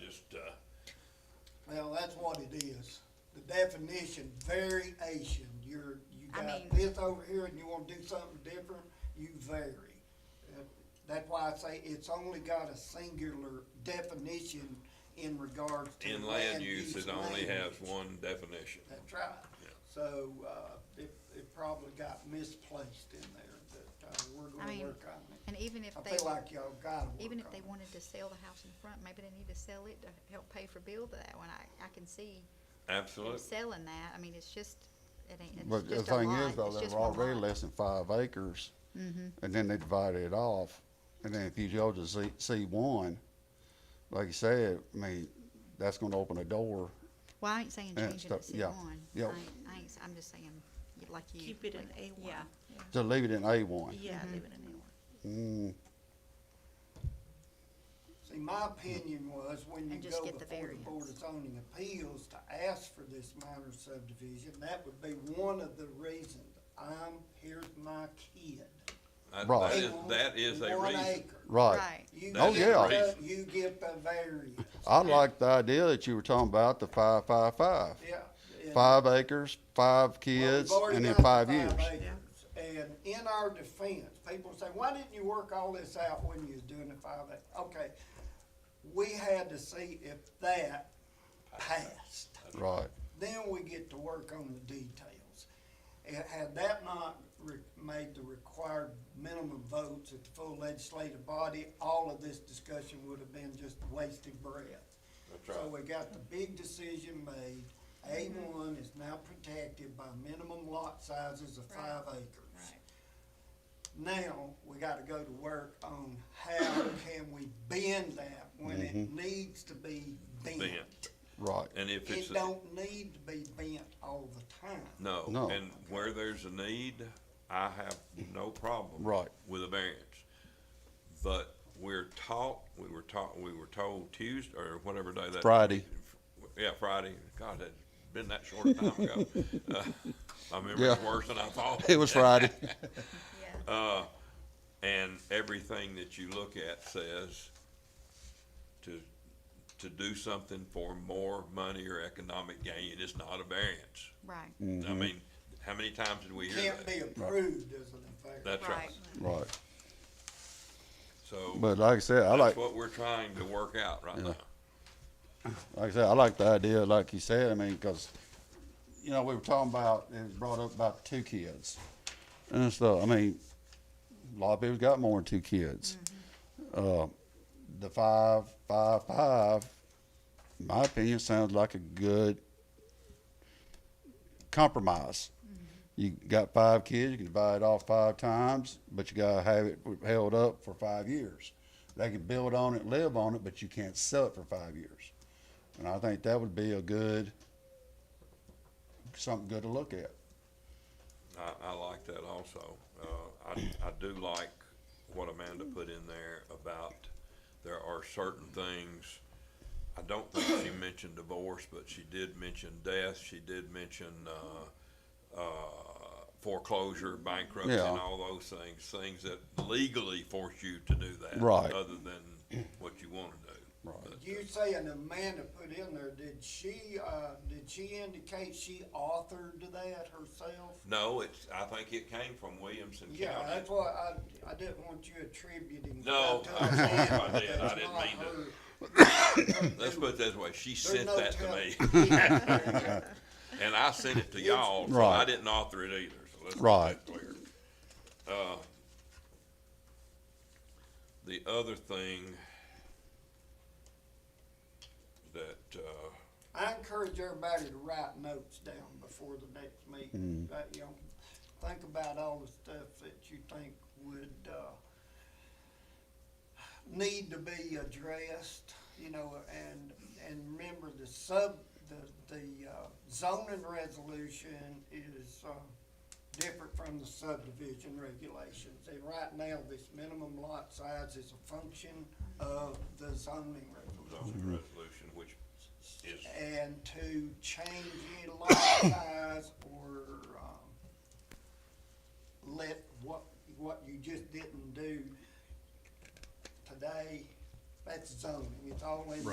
just, uh, Well, that's what it is. The definition variation, you're, you I got mean- this over here and you wanna do something different, you vary. Uh, That's why I say it's only got a singular definition in regards to. in land use, it only has language. one definition. That's right. Yeah. So, uh, it, it probably got misplaced in there, but, uh, we're I gonna mean, work on it. And even if I they, feel like y'all gotta work on it. even if they wanted to sell the house in front, maybe they need to sell it to help pay for bill to that one. I, I can see them Absolutely. selling that. I mean, it's just, it ain't, it's But the just a thing lot. is, though, It's they just were one already lot. less than five acres, Mhm. and then they divided it off, and then if you go to C, C one, like you said, I mean, that's gonna open a door. Well, I ain't saying Yeah, change it to stuff- C yeah, one. I yeah. ain't, I ain't, s- I'm just saying, y- like you. Keep it in like- A one. Yeah, To leave it in A one. Yeah, Mhm. leave it in A one. Mm, See, my opinion was when you And just go get the before the Board of variance. Zoning Appeals to ask for this minor subdivision, that would be one of the reasons. I'm, here's my kid. I- Right. That is, that is a One reason. acre. right. Right. You That is get a the- reason. You get the variance, I like the idea that you were talking about, the five, five, five. yeah. and- Five acres, Well, five we've kids, already and then got the five years. acres. And in our defense, people say, why didn't you work all this out when you was doing the five acre? Okay, we had to see if that passed. Right. then we get to work on the details. And had that not re- made the required minimum votes at the full legislative body, all of this discussion would have been just wasted breath. That's So right. we got the big decision made, A one is now protected by minimum lot sizes of five acres. right. Now, we gotta go to work on how can we bend that when Mm-hmm. it needs to be bent. Bent. Right. And if it's, It a- don't need to be bent all the time. no, No. and where there's a need, I have no problem. Right. With a variance. But we're taught, we were taught, we were told Tuesday, or whatever day that. Friday. Yeah, Friday. God, that's been that short a time ago. Uh, I remember it's Yeah. worse than I thought. It was Friday. Yeah, Uh, and everything that you look at says to, to do something for more money or economic gain, it's not a variance. right. I Mm-hmm. mean, how many times did we hear Can't be that? approved as an affair. That's right. Right. So But like I said, I like, that's what we're trying to work out right now. like I said, I like the idea, like you said, I mean, because, you know, we were talking about, it was brought up about two kids. And stuff, I mean, a lot of people's got more than two kids. Uh, the five, five, five, in my opinion, sounds like a good compromise. You got five kids, you can divide it off five times, but you gotta have it held up for five years. They can build on it, live on it, but you can't sell it for five years. And I think that would be a good, something good to look at. I, I like that also. Uh, I, I do like what Amanda put in there about there are certain things. I don't think she mentioned divorce, but she did mention death. She did mention, uh, uh, foreclosure, bankruptcy and Yeah. all those things, things that legally force you to do that. Right. Other than what you wanna do. Right. But, You saying Amanda put in there, did she, uh, did she indicate she authored that herself? No, it's, I think it came from Williamson County. Yeah, that's why I, I didn't want you attributing. No, that to I'm sorry if I Amanda. did. I That's didn't not mean to. her. Let's put it this way, she There's sent no that to me. telling. And I sent it to y'all, so I Right. didn't author it either, so let's Right. get that clear. Uh, The other thing that, uh, I encourage everybody to write notes down before the next meeting. That, you know, think about all the stuff that you think would, uh, need to be addressed, you know, and, and remember the sub, the, the uh, zoning resolution is, uh, different from the subdivision regulations. And right now, this minimum lot size is a function of the zoning was resolution. on the Mm-hmm. resolution, which is, And to change your lot size or, um, let what, what you just didn't do today, that's zoning, it's all in